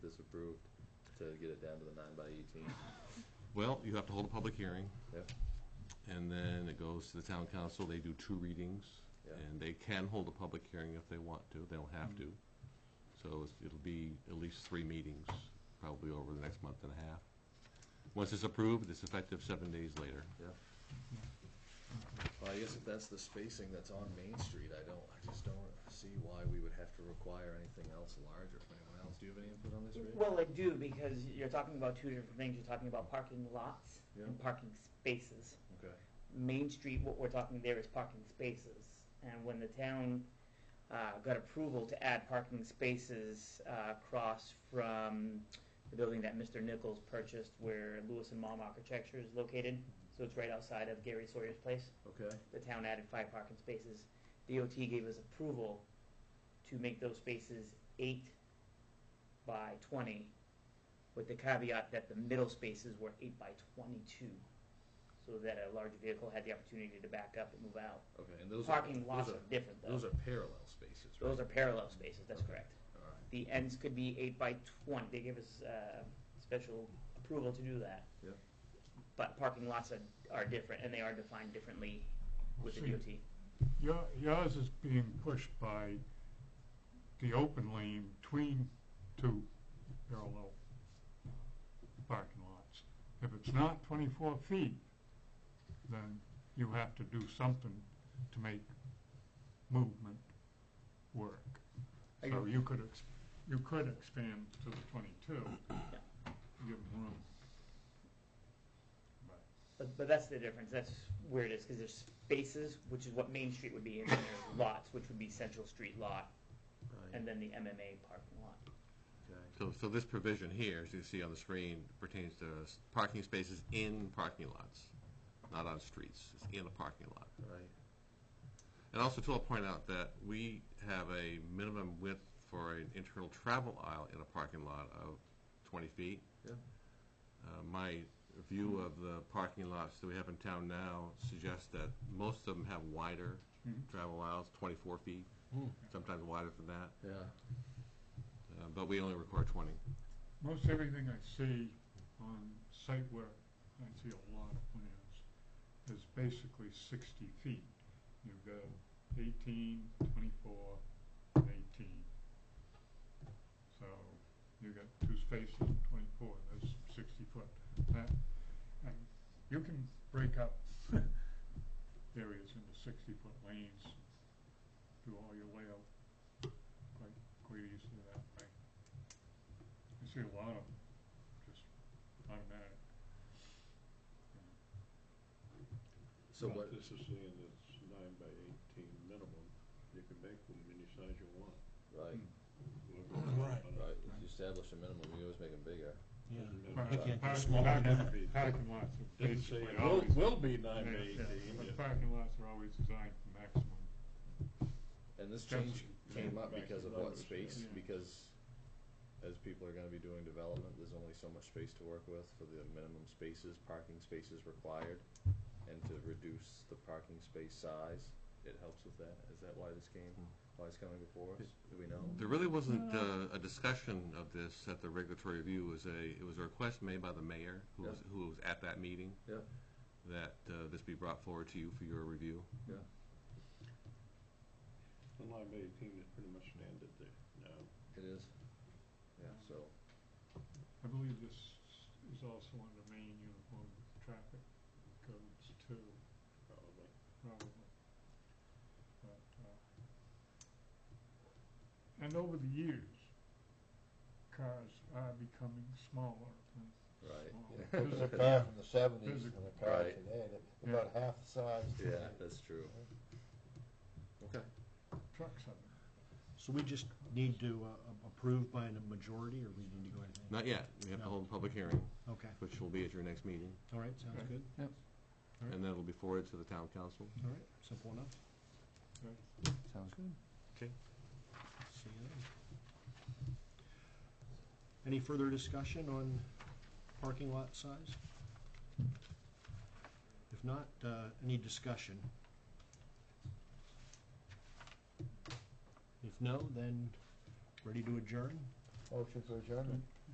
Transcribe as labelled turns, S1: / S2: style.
S1: this approved to get it down to the nine by eighteen.
S2: Well, you have to hold a public hearing,
S1: Yep,
S2: and then it goes to the town council, they do two readings,
S1: Yeah.
S2: and they can hold a public hearing if they want to, they don't have to. So it's- it'll be at least three meetings, probably over the next month and a half. Once it's approved, it's effective seven days later.
S1: yep. Well, I guess if that's the spacing that's on Main Street, I don't, I just don't see why we would have to require anything else larger from anyone else. Do you have any input on this, Ray?
S3: Well, I do, because you're talking about two different things. You're talking about parking lots and
S1: Yeah.
S3: parking spaces.
S1: Okay,
S3: Main Street, what we're talking there is parking spaces. And when the town uh, got approval to add parking spaces uh, across from the building that Mr. Nichols purchased where Lewis and Mom Architecture is located, so it's right outside of Gary Sawyer's place,
S1: okay,
S3: the town added five parking spaces. DOT gave us approval to make those spaces eight by 20, with the caveat that the middle spaces were eight by 22, so that a large vehicle had the opportunity to back up and move out.
S1: okay, and those are.
S3: Parking lots
S1: those
S3: are different,
S1: Those
S3: though.
S1: are parallel spaces, right?
S3: Those are parallel spaces, that's
S1: Okay.
S3: correct.
S1: All right,
S3: The ends could be eight by 20, they gave us uh, special approval to do that.
S1: Yep.
S3: But parking lots are, are different, and they are defined differently with the
S4: See.
S3: DOT.
S4: Your- Yours is being pushed by the open lane between two parallel parking lots. If it's not 24 feet, then you have to do something to make movement work.
S3: I
S4: So
S3: get-
S4: you could, ex- you could expand to the 22, give them room. But
S3: But, but that's the difference, that's where it is, because there's spaces, which is what Main Street would be, and then there's lots, which would be Central Street lot,
S1: right,
S3: and then the MMA parking lot.
S1: okay.
S2: So, so this provision here, as you see on the screen, pertains to s- parking spaces in parking lots, not on streets, it's in a parking lot.
S1: Right,
S2: And also, too, I'll point out that we have a minimum width for an internal travel aisle in a parking lot of 20 feet.
S1: yeah,
S2: Uh, My view of the parking lots that we have in town now suggests that most of them have wider travel aisles, 24 feet, sometimes wider than that,
S1: yeah,
S2: Uh, but we only require 20.
S4: Most everything I see on site work, I see a lot of plans, is basically sixty feet. You've got 18, 24, and eighteen. So you got two spaces, twenty-four, that's sixty foot. That, and you can break up areas into sixty-foot lanes, do all your layout quite, quite easily that way. I see a lot of just automatic.
S1: so
S5: Well,
S1: what,
S5: This is saying it's nine by eighteen minimum, you can make them any size you want.
S1: right,
S6: Right.
S1: right, if you establish a minimum, you always make them bigger.
S6: Yeah.
S4: Park-
S6: You
S4: park-
S6: can't do smaller than that.
S4: parking- Parking lots are
S5: Didn't say
S4: basically
S5: it will,
S4: always.
S5: will be nine by
S4: Yeah, yeah,
S5: eighteen.
S4: But
S5: yeah.
S4: parking lots are always designed for maximum.
S1: And this change came up because of what
S5: Numbers,
S1: space,
S4: yeah.
S1: because as people are gonna be doing development, there's only so much space to work with for the minimum spaces, parking spaces required. And to reduce the parking space size, it helps with that. Is that why this came,
S6: Hmm.
S1: why it's coming before us? Do we know?
S2: There really wasn't uh, a discussion of this at the regulatory review, it was a, it was a request made by the mayor, who was,
S1: Yeah.
S2: who was at that meeting,
S1: Yeah,
S2: that uh, this be brought forward to you for your review.
S1: yeah,
S5: The nine by eighteen is pretty much standard there now.
S1: it is. Yeah, so,
S4: I believe this is also under main uniform traffic codes too,
S5: probably.
S4: probably. But, uh, And over the years, cars are becoming smaller and
S1: right.
S4: smaller.
S6: There's a car from the seventies
S4: There's a-
S6: and a car
S1: Right.
S6: today, they're about half the size.
S1: Yeah, that's true. Okay.
S4: Trucks are
S7: So we just need to uh, approve by a majority, or we need to go anything?
S2: Not yet, we have to hold a public hearing,
S7: Okay,
S2: which will be at your next meeting,
S7: all right, sounds
S4: Okay.
S7: good,
S2: and that'll be forwarded to the town council.
S7: all right, simple enough.
S4: Right.
S7: Sounds good.
S2: Okay.
S7: See you then. Any further discussion on parking lot size? If not, uh, any discussion? If no, then ready to adjourn?
S6: Motion for adjournment.